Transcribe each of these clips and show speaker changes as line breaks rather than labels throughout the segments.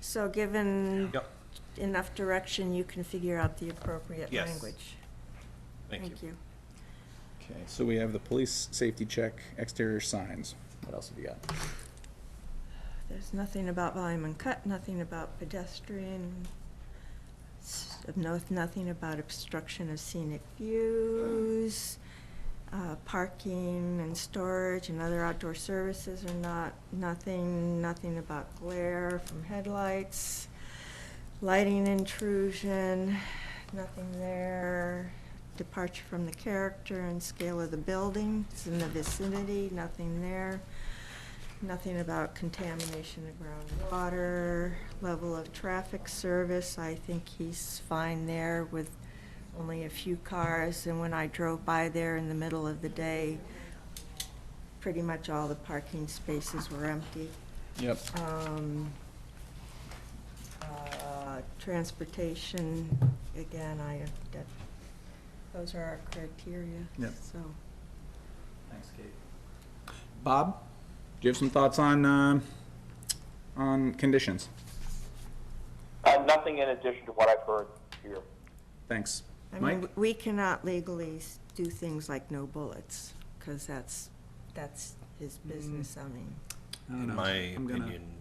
So given
Yep,
enough direction, you can figure out the appropriate
Yes.
language. Thank you.
Okay, so we have the police safety check, exterior signs. What else have you got?
There's nothing about volume and cut, nothing about pedestrian, s- no, nothing about obstruction of scenic views, uh, parking and storage and other outdoor services are not, nothing, nothing about glare from headlights, lighting intrusion, nothing there, departure from the character and scale of the building, it's in the vicinity, nothing there. Nothing about contamination of groundwater, level of traffic service, I think he's fine there with only a few cars, and when I drove by there in the middle of the day, pretty much all the parking spaces were empty.
Yep.
Um, uh, Transportation, again, I, that, those are our criteria,
Yep.
so.
Thanks, Kate. Bob, do you have some thoughts on, um, on conditions?
Uh, nothing in addition to what I've heard here.
Thanks.
I mean,
Mike?
we cannot legally s- do things like no bullets, because that's, that's his business, I mean.
I don't
in
know.
my
I'm gonna-
opinion,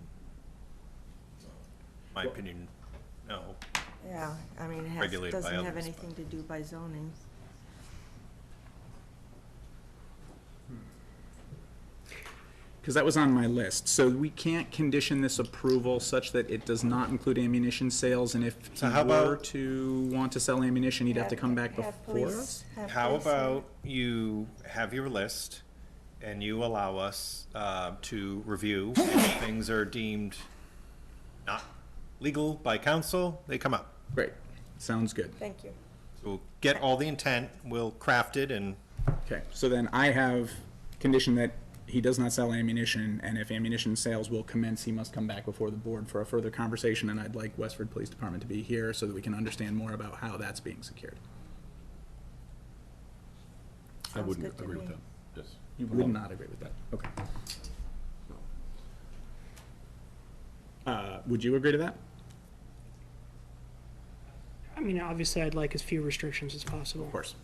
my opinion, no.
Yeah, I mean, it has,
Regulated by
doesn't have
others,
anything to do by zoning.
Because that was on my list. So we can't condition this approval such that it does not include ammunition sales, and if he
So how
were
about-
to want to sell ammunition, he'd have to come back
Have
before
police-
us?
have
How
police in it.
about you have your list and you allow us uh, to review if things are deemed not legal by council, they come up.
Great, sounds good.
Thank you.
So We'll get all the intent, we'll craft it and
Okay, so then I have condition that he does not sell ammunition, and if ammunition sales will commence, he must come back before the board for a further conversation, and I'd like Westford Police Department to be here so that we can understand more about how that's being secured.
I
Sounds
wouldn't
good to
agree with
me.
that, yes.
You would not agree with that, okay. Uh, would you agree to that?
I mean, obviously, I'd like as few restrictions as possible.
Of course.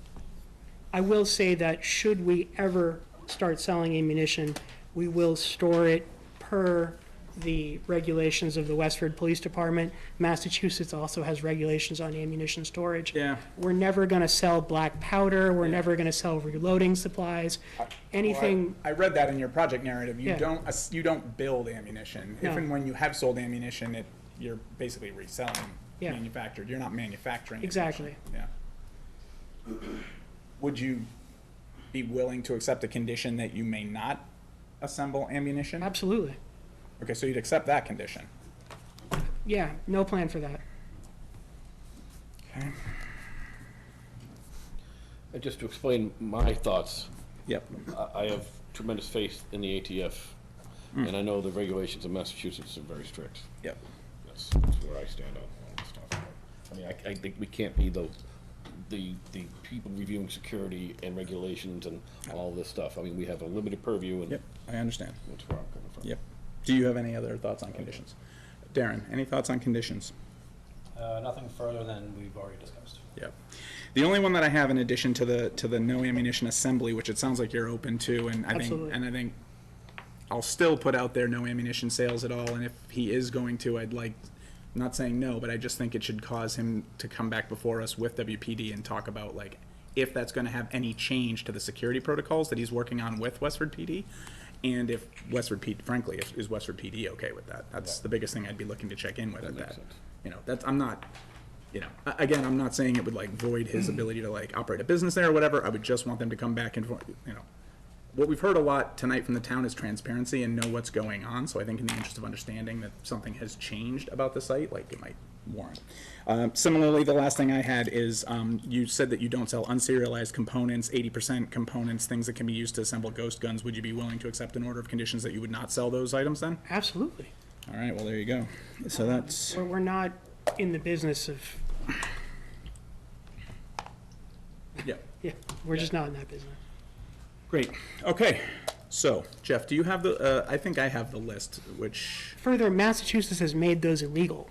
I will say that should we ever start selling ammunition, we will store it per the regulations of the Westford Police Department. Massachusetts also has regulations on ammunition storage.
Yeah.
We're never gonna sell black powder, we're never gonna sell reloading supplies, anything,
I read that in your project narrative, you
Yeah.
don't, ass- you don't build ammunition. If
No.
and when you have sold ammunition, it, you're basically reselling
Yeah.
manufactured, you're not manufacturing. ammunition.
exactly.
Yeah. Would you be willing to accept a condition that you may not assemble ammunition?
Absolutely,
Okay, so you'd accept that condition.
yeah, no plan for that.
Okay.
And just to explain my thoughts,
Yep.
I- I have tremendous faith in the ATF, and I know the regulations in Massachusetts are very strict.
Yep.
That's that's where I stand on all this stuff. I mean, I, I think we can't be the, the, the people reviewing security and regulations and all this stuff. I mean, we have a limited purview, and
Yep. I understand.
that's where I'm coming from.
Yep. Do you have any other thoughts on conditions? Darren, any thoughts on conditions?
Uh, Nothing further than we've already discussed.
Yep. The only one that I have in addition to the to the no ammunition assembly, which it sounds like you're open to, and I
Absolutely.
think and I think I'll still put out there no ammunition sales at all. And if he is going to, I'd like I'm not saying no, but I just think it should cause him to come back before us with WPD and talk about like if that's going to have any change to the security protocols that he's working on with Westford PD. And if Westford PD, frankly, if, is Westford PD okay with that? That's the biggest thing I'd be looking to check in with at
makes
that.
sense.
You know, that's I'm not you know, a- again, I'm not saying it would like void his ability to like operate a business there or whatever. I would just want them to come back and, for- you know, what we've heard a lot tonight from the town is transparency and know what's going on. So I think in the interest of understanding that something has changed about the site, like it might warrant. Um, similarly, the last thing I had is um, you said that you don't sell unserialized components, 80% components, things that can be used to assemble ghost guns. Would you be willing to accept an order of conditions that you would not sell those items then?
Absolutely,
All right, well, there you go. So that's.
we're, we're not in the business of,
Yep.
yeah, we're just not in that business.
Great. Okay. So, Jeff, do you have the, uh, I think I have the list, which
Further, Massachusetts has made those illegal.